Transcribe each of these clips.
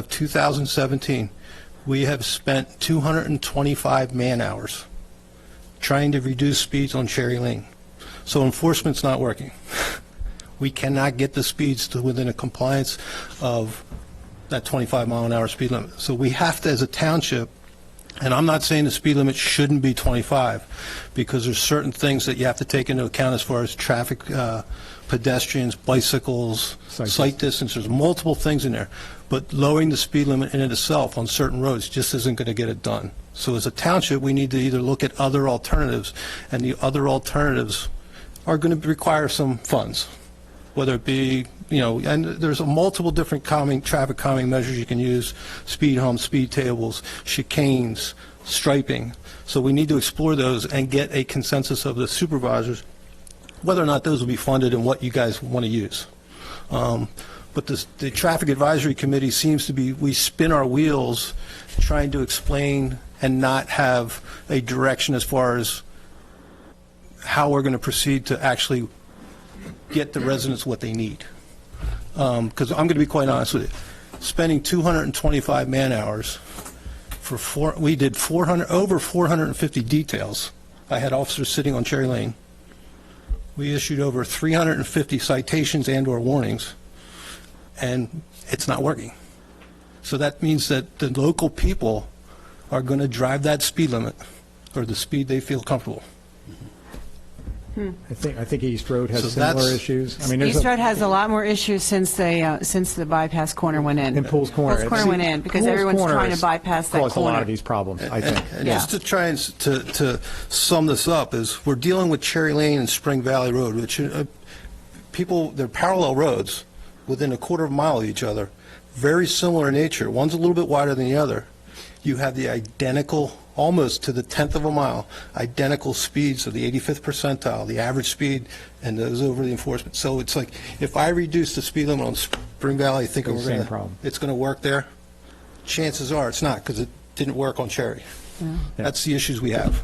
of 2017, we have spent 225 man-hours trying to reduce speeds on Cherry Lane. So enforcement's not working. We cannot get the speeds to within a compliance of that 25 mile an hour speed limit. So we have to, as a township, and I'm not saying the speed limit shouldn't be 25, because there's certain things that you have to take into account as far as traffic, uh, pedestrians, bicycles, Cyclists. sight distance, there's multiple things in there. But lowering the speed limit in and itself on certain roads just isn't going to get it done. So as a township, we need to either look at other alternatives, and the other alternatives are going to require some funds, whether it be, you know, and there's a multiple different calming, traffic calming measures you can use, speed humps, speed tables, chicanes, striping. So we need to explore those and get a consensus of the supervisors whether or not those will be funded and what you guys want to use. Um, But this- the Traffic Advisory Committee seems to be, we spin our wheels trying to explain and not have a direction as far as how we're going to proceed to actually get the residents what they need. Because I'm going to be quite honest with you, spending 225 man-hours for four, we did 400, over 450 details. I had officers sitting on Cherry Lane. We issued over 350 citations and/or warnings, and it's not working. So that means that the local people are going to drive that speed limit, or the speed they feel comfortable. I think, I think East Road So has similar that's- issues. I mean, there's East Road a, has a lot more issues since the, uh, since the bypass corner went in. and Pools Corner. Pools Corner went in, because Pools everyone's Corner trying to has bypass that corner. Caused a lot of these problems, I think. And Yeah. just to try and, s- to, to sum this up, is we're dealing with Cherry Lane and Spring Valley Road, which, uh, people, they're parallel roads, within a quarter of a mile of each other, very similar in nature, one's a little bit wider than the other. You have the identical, almost to the tenth of a mile, identical speeds of the 85th percentile, the average speed, and those over the enforcement. So it's like, if I reduce the speed limit on Spring Valley, thinking It's we're the going same to... problem. It's going to work there, chances are it's not, because it didn't work on Cherry. That's the issues we have.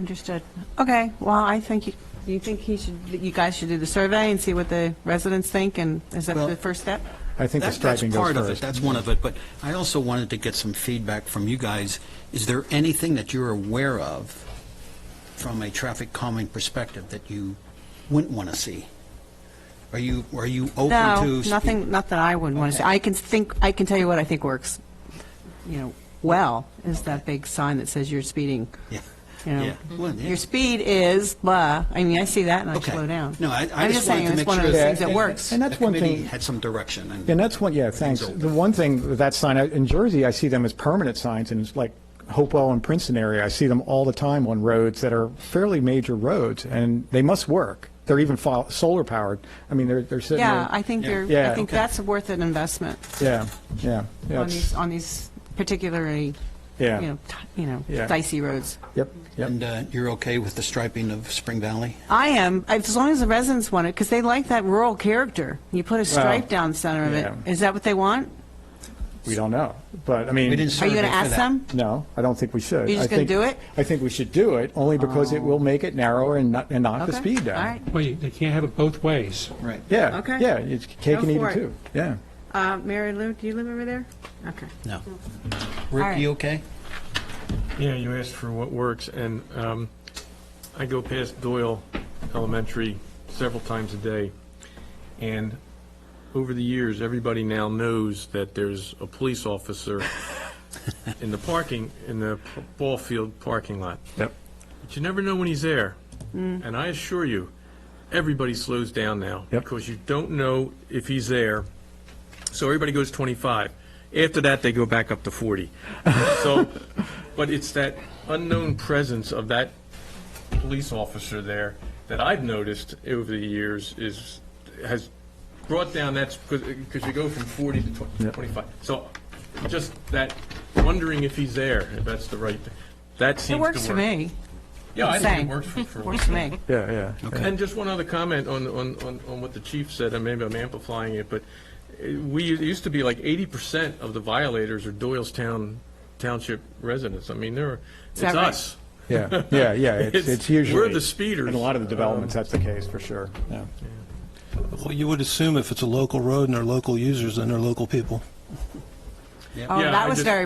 Understood. Okay, well, I think, you you think he should, that you guys should do the survey and see what the residents think, and is that Well- the first step? I think the That- That's striping goes part of it, first. that's one of it, but I also wanted to get some feedback from you guys. Is there anything that you're aware of from a traffic calming perspective that you wouldn't want to see? Are you, are you open to? No, speak- nothing, not that I wouldn't want to say. I can think, I can tell you what I think works, you know, well, is that big sign that says you're speeding. Yeah. You know, Yeah. Well, yeah. Your speed is blah, I mean, I see that and I Okay. slow down. No, I- I I'm just wanted saying, to it's make one of sure those that- things that works. And that's one The committee thing- had some direction and. And that's one, yeah, thanks. open. The one thing, with that sign, I- in Jersey, I see them as permanent signs, and it's like Hopewell and Princeton area, I see them all the time on roads that are fairly major roads, and they must work. They're even fol- solar powered. I mean, they're, they're sitting Yeah, there. I think you're, I Yeah. think Okay. that's worth an investment Yeah, yeah, yeah. on it's- these, on these particularly, you Yeah. know, t- you know, Yeah. dicey roads. Yep, yep. And uh, you're okay with the striping of Spring Valley? I am, as long as the residents want it, because they like that rural character. You put a stripe down the center of it. yeah. Is that what they want? We don't know, but I mean. We didn't Are you going survey to for ask that. them? No, I don't think we should. You're just I gonna think- do it? Oh. I think we should do it, only because it will make it narrower and not, and knock the Okay, speed down. All right. Well, you- they can't have it both ways. Right. Yeah, Okay. yeah, it's cake Go and eat for it it. too. Yeah. Uh, Mary Lou, do you live over there? Okay. No. All Rick, right. you okay? Yeah, you asked for what works, and um, I go past Doyle Elementary several times a day, and over the years, everybody now knows that there's a police officer in the parking, in the ball field parking lot. Yep. But you never know when he's there. Mm. And I assure you, everybody slows down now. Yep. Because you don't know if he's there. So everybody goes 25. After that, they go back up to 40. So, but it's that unknown presence of that police officer there that I've noticed over the years is, has brought down that, because you go from 40 to twen- Yep. 25. So just that, wondering if he's there, if that's the right, thing. that seems to It work. works for me. Yeah, I think Same. it works for, for. Works for me. Yeah, yeah. And just one other comment on, on, on, on what the chief said, and maybe I'm amplifying it, but uh, we, it used to be like eighty percent of the violators are Doylestown Township residents. I mean, there are, it's that right? us. Yeah, yeah, yeah, it's, It's- it's usually. we're the speeders. In a lot of the developments, that's the case, for sure, yeah. Well, you would assume if it's a local road and they're local users, then they're local people. Oh, Yeah, I that was just- very